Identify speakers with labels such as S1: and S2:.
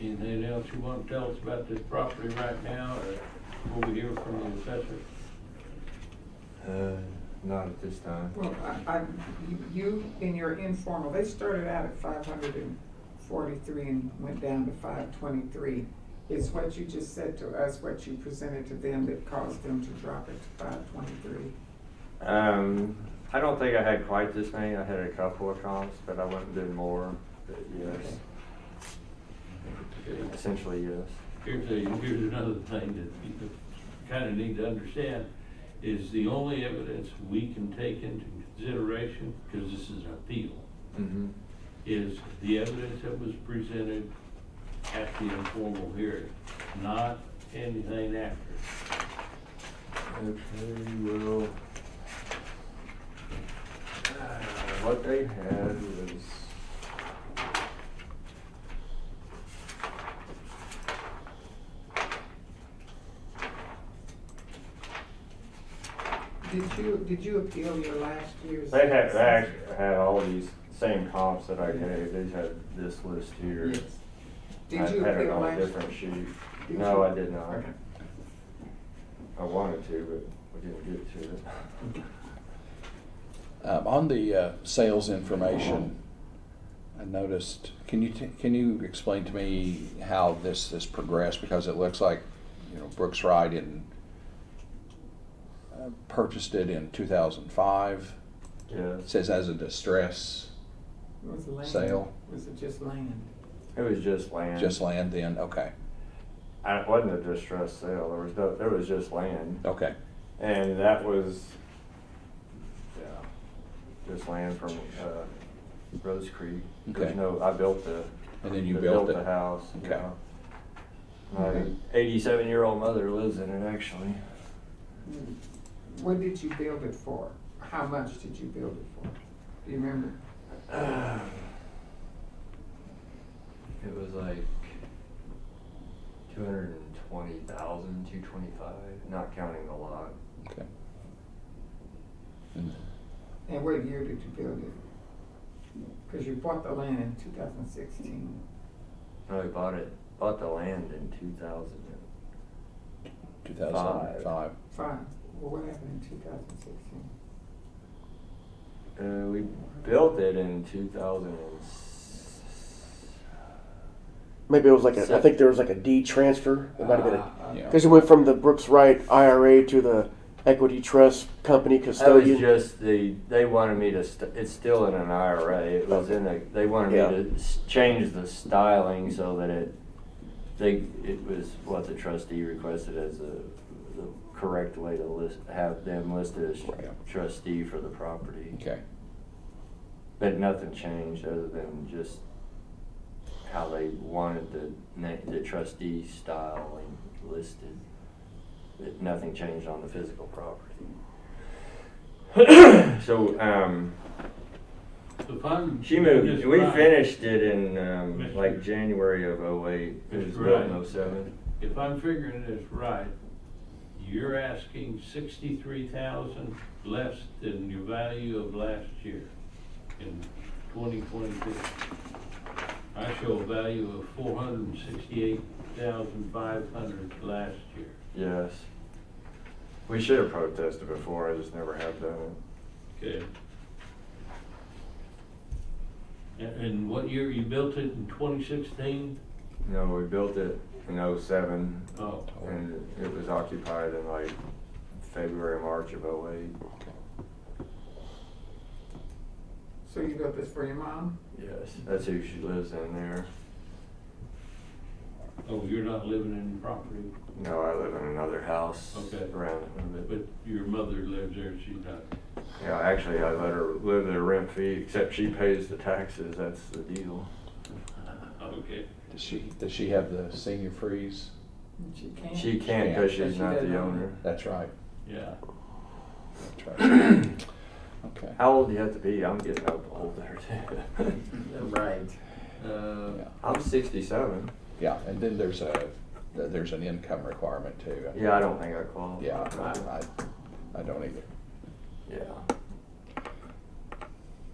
S1: Anything else you want to tell us about this property right now, or will we hear from the assessor?
S2: Uh, not at this time.
S3: Well, I, I, you, in your informal, they started out at five hundred and forty-three and went down to five twenty-three. Is what you just said to us, what you presented to them that caused them to drop it to five twenty-three?
S2: Um, I don't think I had quite this many. I had a couple of comps, but I wouldn't do more. But yes,
S1: Okay.
S2: essentially yes.
S1: Here's a, here's another thing that you kind of need to understand, is the only evidence we can take into consideration, because this is an appeal,
S2: Mm-hmm.
S1: is the evidence that was presented at the informal hearing, not anything after.
S2: Okay, well. uh, What they had was.
S3: Did you, did you appeal your last year's?
S2: They had, they act- had all these same comps that I gave. They had this list here.
S3: Yes.
S2: I
S3: Did you
S2: had it
S3: appeal
S2: on a
S3: last?
S2: Different sheet.
S3: Did
S2: No,
S3: you?
S2: I did not.
S3: Okay.
S2: I wanted to, but we didn't get to it.
S4: Um, on the uh, sales information, I noticed. Can you t- can you explain to me how this has progressed? Because it looks like, you know, Brooks Ride in, uh, purchased it in 2005. It
S2: Yes,
S4: says as a distress
S3: Was it land?
S4: Sale.
S3: Was it just land?
S2: it was just land.
S4: just land. Then okay,
S2: I- It wasn't a distressed sale. There was no, there was just land.
S4: okay,
S2: And that was, yeah, just land from, uh, Rose Creek. There's
S4: Okay.
S2: no, I built the.
S4: and then you
S2: I
S4: built,
S2: the
S4: it.
S2: house.
S4: Okay.
S2: yeah. My
S3: Okay.
S2: eighty-seven-year-old mother lives in it, actually.
S3: What did you build it for? How much did you build it for? Do you remember?
S2: It was like two hundred and twenty thousand, two twenty-five, not counting the lot.
S4: Okay. And
S3: And what year did you build it? Because you bought the land in two thousand sixteen.
S2: No, we bought it, bought the land in two thousand.
S4: 2005.
S3: Fine. Well, what happened in two thousand sixteen?
S2: Uh, we built it in two thousand and s-
S5: Maybe it was like a, I
S2: So- Ah.
S5: think there was like a D transfer. It might have been
S2: uh,
S4: Yeah.
S5: because it went from the Brooks Wright IRA to the Equity Trust Company
S2: That was
S5: custodian.
S2: just the, they wanted me to, st- it's still in an IRA, it was in a, they wanted me to s- change the styling so that it, they, it was what the trustee requested as a, the correct way to list, have them listed as
S4: Right.
S2: trustee for the property.
S4: Okay.
S2: But nothing changed other than just how they wanted the, na- the trustee styling listed. But nothing changed on the physical property. So, um,
S1: So if I'm.
S2: she moved,
S1: just
S2: we
S1: right,
S2: finished it in, um, like January of oh eight. It was
S1: That's
S2: built in
S1: right.
S2: oh seven.
S1: If I'm figuring this right, you're asking sixty-three thousand less than your value of last year in twenty twenty-two. I show a value of four hundred and sixty-eight thousand five hundred last year.
S2: Yes. We should have protested before, I just never have done it.
S1: Okay. And, and what year you built it in twenty sixteen?
S2: No, we built it in oh seven.
S1: Oh,
S2: And it was occupied in like February, March of '08.
S3: So you built this for your mom?
S2: Yes. That's who she lives in there.
S1: oh, you're not living in the property,
S2: No, I live in another house
S1: Okay.
S2: around it. a little bit.
S1: but your mother lives there, she's not.
S2: Yeah, actually, I let her live there rent free, except she pays the taxes. That's the deal.
S1: Okay.
S4: Does she does she have the senior freeze?
S3: She can't.
S2: She can't because
S3: Yeah,
S2: she's
S3: she
S2: not
S3: doesn't
S2: the
S3: own
S2: owner.
S4: That's right.
S1: Yeah.
S4: That's right. okay.
S2: How old do you have to be? I'm getting up old there too.
S3: Right.
S1: Uh,
S4: Yeah.
S2: I'm 67.
S4: Yeah, and then there's a, th- there's an income requirement too.
S2: Yeah, I don't think I qualify.
S4: Yeah, I, I- I don't either.
S2: Yeah.